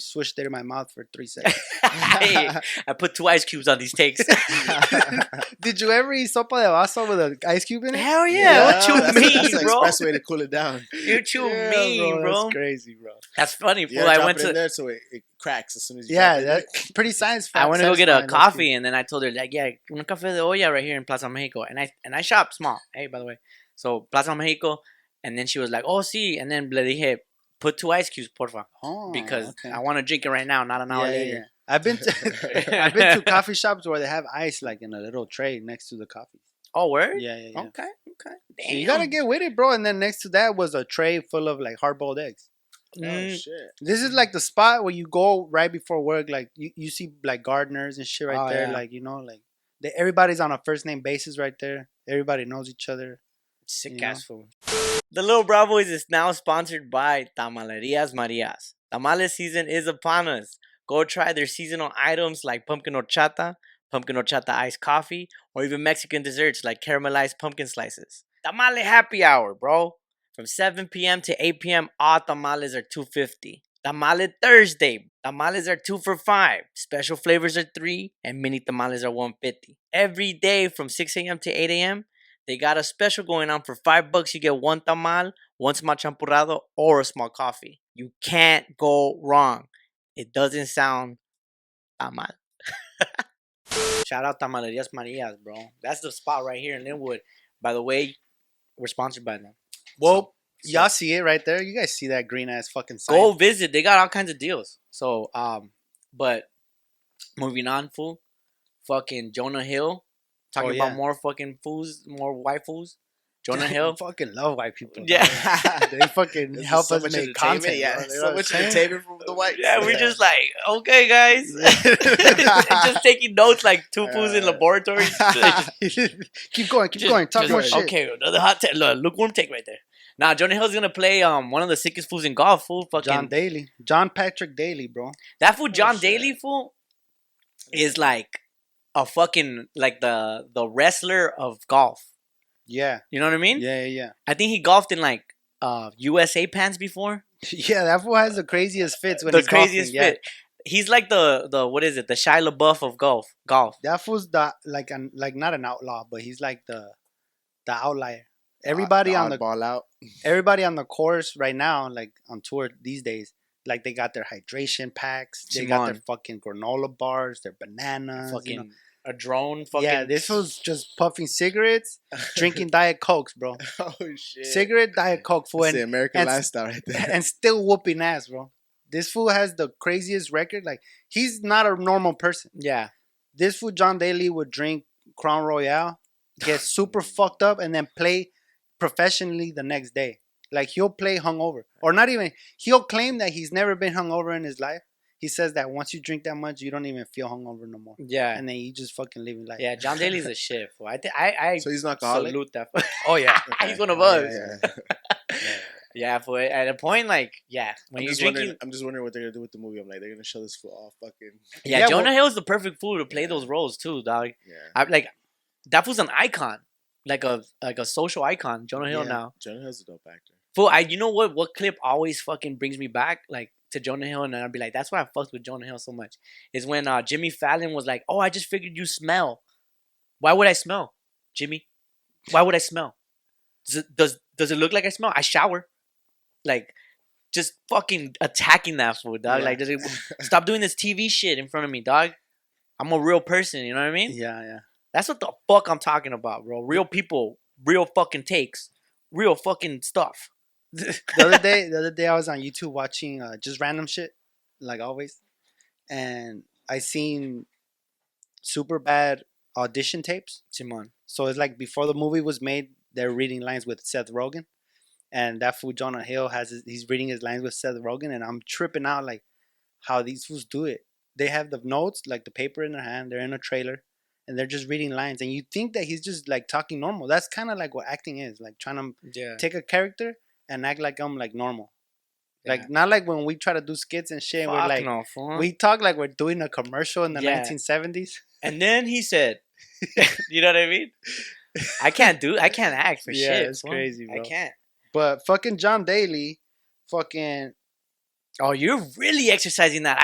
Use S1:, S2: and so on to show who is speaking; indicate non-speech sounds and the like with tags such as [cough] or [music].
S1: swished it in my mouth for three seconds.
S2: [laughs] Hey, I put two ice cubes on these takes.
S1: [laughs] Did you ever eat sopa de vaso with an ice cube in it?
S2: Hell yeah! what you
S1: Yeah,
S3: that's the-
S2: mean,
S3: that's the
S2: bro?
S3: express way to cool it down.
S2: What you
S1: Yeah,
S2: mean, bro? That's,
S1: That's crazy, bro.
S2: funny, fool.
S3: Yeah,
S2: I
S3: drop
S2: went
S3: it in
S2: to
S3: there so it, it cracks as soon as you.
S1: Yeah,
S3: drop it in
S1: that,
S3: there.
S1: pretty science.
S2: I
S1: fact-
S2: went to go get a
S1: satisfying,
S2: coffee, and then I told her like, yeah, un café de olla right here in Plaza Mexico, and I and I shop small. Hey, by the way, so Plaza Mexico, and then she was like, oh, sí, and then le dije, put two ice cubes, porfa,
S1: low-key.
S2: because
S1: Oh, okay.
S2: I want to drink it right now, not an hour
S1: Yeah, yeah,
S2: later.
S1: yeah. I've been to [laughs] I've been
S2: [laughs]
S1: to coffee shops where they have ice like in a little tray next to the coffee.
S2: Oh, word?
S1: Yeah, yeah, yeah.
S2: Okay, okay.
S1: So you gotta
S2: Damn.
S1: get with it, bro. And then next to that was a tray full of like hard boiled eggs.
S3: Oh
S2: Mm,
S3: shit!
S1: This is like the spot where you go right before work. Like you, you see like gardeners and shit right
S2: Oh,
S1: there.
S2: yeah.
S1: Like you know, like they, everybody's on a first name basis right there. Everybody knows each other.
S2: Sick
S1: You
S2: ass food. The Little Bravois is now sponsored by Tamalerias Marias. Tamales season is upon us. Go try their seasonal items like pumpkin horchata, pumpkin horchata iced coffee, or even Mexican desserts like caramelized pumpkin slices. Tamale happy hour, bro. From 7 p.m. to 8 p.m., all tamales are 250. Tamale Thursday. Tamales are two for five. Special flavors are three, and mini tamales are 150. Every day from 6 a.m. to 8 a.m., they got a special going on for five bucks. You get one tamal, one small champurrado, or a small coffee. You can't go wrong. It doesn't sound tamal. [laughs] Shout out Tamalerias Marias, bro. That's the spot right here in Linwood. By the way, we're sponsored by them.
S1: Well,
S2: so-
S1: y'all see it right there. You guys see that green ass fucking sign?
S2: Go visit. They got all kinds of deals. So, um, but moving on, fool. Fucking Jonah Hill. Talking
S1: Oh,
S2: about
S1: yeah.
S2: more fucking fools, more white fools. Jonah Hill.
S1: fucking love white people.
S2: Yeah. [laughs]
S1: [laughs] dog. they fucking
S3: This is
S1: help
S3: so
S1: us
S3: much
S1: make
S3: entertainment,
S1: content.
S3: Yeah,
S1: bro. You know
S3: so
S1: what
S3: much
S1: I'm saying?
S3: entertainment from the whites.
S2: Yeah, we're
S1: Yeah.
S2: just like, okay, [laughs] guys.
S1: [laughs]
S2: just taking notes like two poos in
S3: Uh,
S1: [laughs]
S2: laboratories. [laughs] Just-
S1: keep going, keep
S2: just-
S1: going. Talk
S2: just-
S1: more shit.
S2: Okay, another hot take. Look, lukewarm take right there. Now, Jonah Hill's going to play um one of the sickest fools in golf, fool. Fucking,
S1: John Daly, Oh, John Patrick Daly, bro.
S2: that fool, John
S3: shit.
S2: Daly, fool, is like a fucking, like the the wrestler of golf.
S1: Yeah,
S2: You know what I mean?
S1: yeah, yeah, yeah.
S2: I think he golfed in like uh USA pants before.
S1: Yeah, that fool has the craziest fits when
S2: the
S1: he's golfing,
S2: craziest
S1: yeah.
S2: fit. He's like the, the, what is it? The Shia LaBeouf of golf. Golf.
S1: That fool's the like an like not an outlaw, but he's like the the outlier. [laughs]
S2: Uh,
S1: Everybody on the
S3: ball
S1: [laughs]
S3: out.
S1: everybody on the course right now, like on tour these days, like they got their hydration packs, they got their
S2: Simón.
S1: fucking granola bars, their bananas.
S2: fucking
S1: you know.
S2: a drone. Fucking
S1: yeah, this was just puffing cigarettes,
S2: [laughs]
S1: drinking diet cokes, bro.
S3: [laughs] Oh shit!
S1: Cigarette diet coke fool,
S3: That's the
S1: and,
S3: American
S1: and-
S3: lifestyle right there.
S1: [laughs] and still whooping ass, bro. This fool has the craziest record. Like he's not a normal person.
S2: yeah.
S1: this fool John Daly would drink Crown Royale,
S2: [laughs]
S1: get super fucked up, and then play professionally the next day. Like he'll play hungover, or not even. He'll claim that he's never been hungover in his life. He says that once you drink that much, you don't even feel hungover no more,
S2: Yeah.
S1: and then you just fucking live your life.
S2: Yeah. John Daly's a shit. fool. I think I
S3: so he's an
S2: I
S3: alcoholic.
S2: salute that. [laughs] fool. oh yeah. He's one of us. [laughs] Yeah.
S3: Yeah, yeah.
S2: for at a point like yeah, when
S3: I'm
S2: you're
S3: just
S2: drinking.
S3: wondering. I'm just wondering what they're gonna do with the movie. I'm like, they're gonna show this fool all fucking.
S2: Yeah,
S1: Yeah,
S2: Jonah
S1: well-
S2: Hill's the perfect fool to play those roles too, dog.
S3: Yeah.
S2: I like that was an icon. Like a like a social icon, Jonah Hill
S1: Yeah.
S2: now.
S3: Jonah Hill's a dope actor.
S2: Fool, I you know what what clip always fucking brings me back like to Jonah Hill and I'll be like, that's why I fucked with Jonah Hill so much. Is when uh Jimmy Fallon was like, Oh, I just figured you smell. Why would I smell, Jimmy? Why would I smell? Does it, does does it look like I smell? I shower. Like just fucking attacking that fool, dog.
S1: Yeah. [laughs]
S2: Like does it, stop doing this TV shit in front of me, dog. I'm a real person, you know what I mean?
S1: yeah, yeah.
S2: That's what the fuck I'm talking about, bro. Real people, real fucking takes, real fucking stuff. [laughs]
S1: the other day, the other day I was on YouTube watching uh, just random shit, like always, and I seen super bad audition tapes.
S2: Simon.
S1: So it's like before the movie was made, they're reading lines with Seth Rogen, and that fool Jonah Hill has his, he's reading his lines with Seth Rogen, and I'm tripping out like how these fools do it. They have the notes, like the paper in their hand. They're in a trailer, and they're just reading lines, and you think that he's just like talking normal. That's kind of like what acting is, like trying to
S2: Yeah.
S1: take a character and act like I'm like normal,
S2: Yeah.
S1: like not like when we try to do skits and shit. And we're
S2: Fuck
S1: like
S2: no, fool.
S1: we talk like we're doing a commercial in the
S2: Yeah.
S1: 1970s.
S2: [laughs] and then he said, [laughs] "You know what I mean? I can't do. I can't act for
S1: Yeah,
S2: shit.
S1: it's
S2: fool.
S1: crazy,
S2: I
S1: bro.
S2: can't.
S1: But fucking John Daly, fucking
S2: Oh, you're really exercising that